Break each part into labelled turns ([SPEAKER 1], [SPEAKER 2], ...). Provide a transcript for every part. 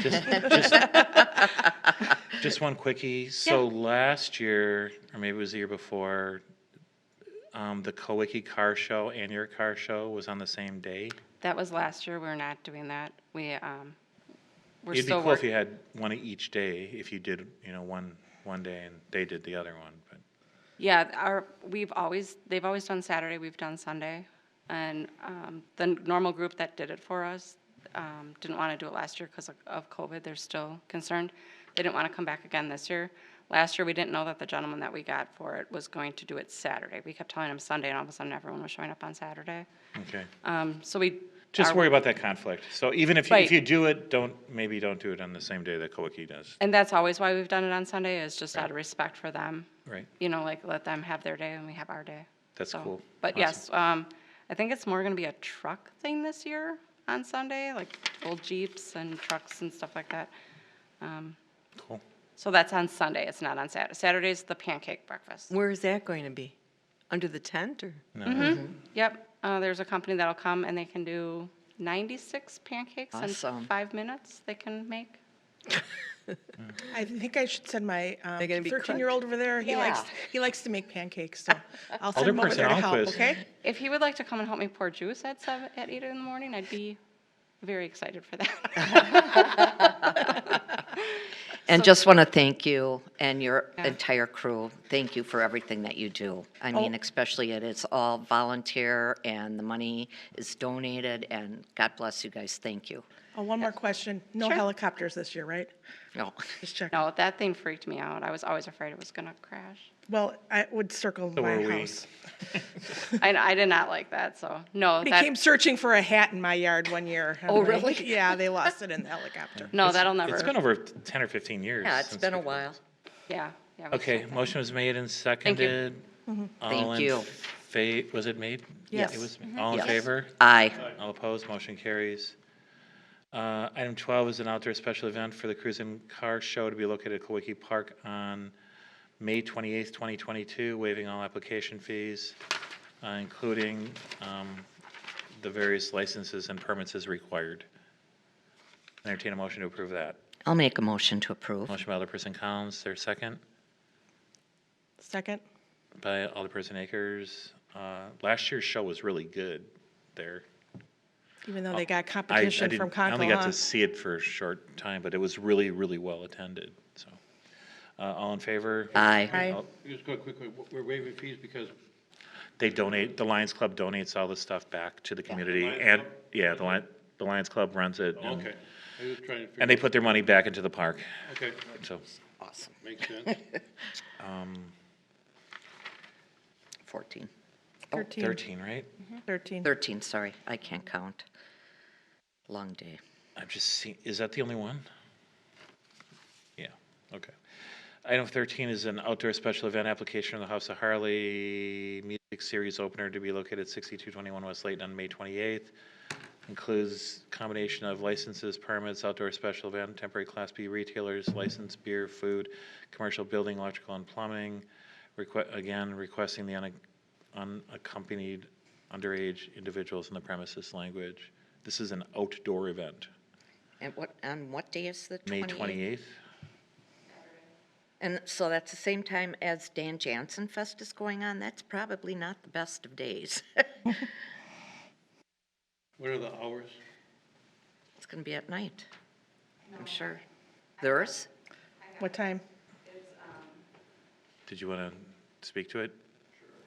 [SPEAKER 1] Just, just, just one quickie. So last year, or maybe it was the year before, um, the Kowicki Car Show and your car show was on the same day.
[SPEAKER 2] That was last year. We're not doing that. We, um, we're
[SPEAKER 1] It'd be
[SPEAKER 2] still
[SPEAKER 1] cool if you
[SPEAKER 2] working.
[SPEAKER 1] had one each day, if you did, you know, one, one day and they did the other one, but.
[SPEAKER 2] Yeah, our, we've always, they've always done Saturday, we've done Sunday. And, um, the normal group that did it for us, um, didn't want to do it last year because of COVID. They're still concerned. They didn't want to come back again this year. Last year, we didn't know that the gentleman that we got for it was going to do it Saturday. We kept telling him Sunday and all of a sudden everyone was showing up on Saturday.
[SPEAKER 1] Okay.
[SPEAKER 2] Um, so we.
[SPEAKER 1] Just
[SPEAKER 2] our-
[SPEAKER 1] worry about that conflict. So even if, you- if
[SPEAKER 2] Right.
[SPEAKER 1] you do it, don't, maybe don't do it on the same day that Kowicki does,
[SPEAKER 2] And that's always why we've done it on Sunday is just out of respect for them.
[SPEAKER 1] right?
[SPEAKER 2] you know, like let them have their day and we have our day.
[SPEAKER 1] That's
[SPEAKER 2] So-
[SPEAKER 1] cool.
[SPEAKER 2] But
[SPEAKER 1] Awesome.
[SPEAKER 2] yes, um, I think it's more gonna be a truck thing this year on Sunday, like old Jeeps and trucks and stuff like that. Um,
[SPEAKER 1] Cool.
[SPEAKER 2] so that's on Sunday, it's not on Saturday. Saturday's the pancake breakfast.
[SPEAKER 3] Where is that going to be? Under the tent or?
[SPEAKER 2] Yep, uh, there's a company that'll come and they can do ninety-six pancakes in
[SPEAKER 3] Awesome.
[SPEAKER 2] five minutes they can make.
[SPEAKER 4] I think I should send my um,
[SPEAKER 3] They're gonna be
[SPEAKER 4] 13-year-old over there. He likes,
[SPEAKER 3] Yeah.
[SPEAKER 4] he likes to make pancakes, so I'll send him over
[SPEAKER 1] Alderperson
[SPEAKER 4] there to help,
[SPEAKER 1] Alquist.
[SPEAKER 4] okay?
[SPEAKER 2] If he would like to come and help me pour juice at seven, at eight in the morning, I'd be very excited for that.
[SPEAKER 5] And just want to thank you and your entire crew. Thank you for everything that you do. I mean, especially it is all volunteer and the money is donated and God bless you guys. Thank you.
[SPEAKER 4] Oh, one more question. No helicopters this year, right?
[SPEAKER 5] No.
[SPEAKER 4] Just checking.
[SPEAKER 2] No, that thing freaked me out. I was always afraid it was gonna crash.
[SPEAKER 4] Well, I would circle my
[SPEAKER 1] were we.
[SPEAKER 4] house.
[SPEAKER 2] I, I did not like that, so, no,
[SPEAKER 4] They
[SPEAKER 2] that-
[SPEAKER 4] came searching for a hat in my yard one year. and
[SPEAKER 5] Oh,
[SPEAKER 4] they-
[SPEAKER 5] really?
[SPEAKER 4] Yeah, they lost it in the helicopter.
[SPEAKER 2] no, that'll never.
[SPEAKER 1] It's been over ten or fifteen years.
[SPEAKER 5] Yeah, it's
[SPEAKER 1] since
[SPEAKER 5] been a
[SPEAKER 1] we've-
[SPEAKER 5] while.
[SPEAKER 2] Yeah, yeah. we
[SPEAKER 1] Okay,
[SPEAKER 2] should.
[SPEAKER 1] motion was made and seconded. All
[SPEAKER 5] Thank
[SPEAKER 1] in
[SPEAKER 5] you. Mm-hmm.
[SPEAKER 1] fa- was it made?
[SPEAKER 3] Yes.
[SPEAKER 1] It was, all in
[SPEAKER 5] Yes.
[SPEAKER 1] favor?
[SPEAKER 5] Aye.
[SPEAKER 1] All opposed, motion carries. Uh, Item 12 is an outdoor special event for the Cruise and Car Show to be located at Kawiki Park on May 28th, 2022, waiving all application fees, uh, including um, the various licenses and permits as required. Entertain a motion to approve that.
[SPEAKER 5] I'll make a motion to approve.
[SPEAKER 1] Motion by Alderperson Collins, there second?
[SPEAKER 4] Second?
[SPEAKER 1] by Alderperson Akers. Uh, last year's show was really good there.
[SPEAKER 4] Even though they
[SPEAKER 1] Oh, I,
[SPEAKER 4] got
[SPEAKER 1] I
[SPEAKER 4] competition
[SPEAKER 1] didn't-
[SPEAKER 4] from
[SPEAKER 1] I only got to
[SPEAKER 4] Concola.
[SPEAKER 1] see it for a short time, but it was really, really well attended, so. Uh, all in favor?
[SPEAKER 5] Aye.
[SPEAKER 1] oh,
[SPEAKER 4] Aye.
[SPEAKER 6] Just go quickly, w- we're waiving fees because
[SPEAKER 1] They donate, the Lions Club donates all the stuff back to the community and, yeah, the Lion, the Lions Club runs it. and-
[SPEAKER 6] Okay, I was trying to figure.
[SPEAKER 1] And they put their money back into the park,
[SPEAKER 6] Okay,
[SPEAKER 1] so.
[SPEAKER 5] Awesome.
[SPEAKER 6] makes sense.
[SPEAKER 5] 14.
[SPEAKER 4] 13,
[SPEAKER 1] Thirteen, right?
[SPEAKER 4] 13.
[SPEAKER 5] 13, sorry. I can't count. Long day.
[SPEAKER 1] I'm just seeing, is that the only one? Yeah, okay. Item 13 is an outdoor special event application of the House of Harley Music Series opener to be located at 6221 West Layton on May 28th. Includes combination of licenses, permits, outdoor special event, temporary Class B retailers, licensed beer, food, commercial building, electrical and plumbing. Requ- Again, requesting the unac- unaccompanied underage individuals in the premises language. This is an outdoor event,
[SPEAKER 5] And what, on what day is the 28th?
[SPEAKER 1] May 28th.
[SPEAKER 5] And so that's the same time as Dan Jansen Fest is going on. That's probably not the best of days.
[SPEAKER 6] What are the hours?
[SPEAKER 5] It's going to be at night, I'm sure. Theirs?
[SPEAKER 4] What time?
[SPEAKER 1] Did you want to speak to it?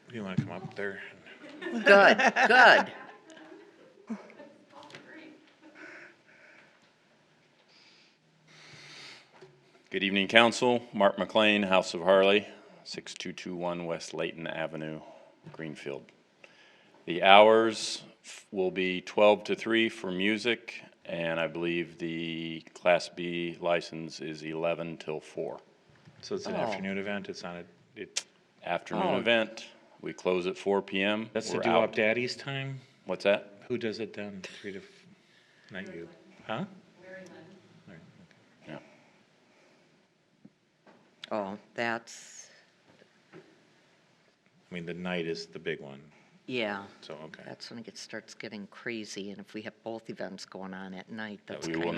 [SPEAKER 1] Do you want to come up there?
[SPEAKER 5] Good, good.
[SPEAKER 7] Good evening, council. Mark McLean, House of Harley, 6221 West Layton Avenue, Greenfield. The hours f- will be 12 to 3 for music, and I believe the Class B license is 11 till 4.
[SPEAKER 1] So it's an afternoon event, it's not a, it,
[SPEAKER 7] Afternoon event, we close at 4 PM.
[SPEAKER 1] Oh. that's the
[SPEAKER 7] We're
[SPEAKER 1] do-up
[SPEAKER 7] out.
[SPEAKER 1] daddy's time?
[SPEAKER 7] What's that?
[SPEAKER 1] Who does it then? Three to, f- not you, huh?
[SPEAKER 7] Yeah.
[SPEAKER 5] Oh, that's,
[SPEAKER 1] I mean, the night is the big one,
[SPEAKER 5] yeah,
[SPEAKER 1] so, okay.
[SPEAKER 5] that's when it gets- starts getting crazy. And if we have both events going on at night, that's
[SPEAKER 7] we
[SPEAKER 5] kind
[SPEAKER 7] will
[SPEAKER 5] of.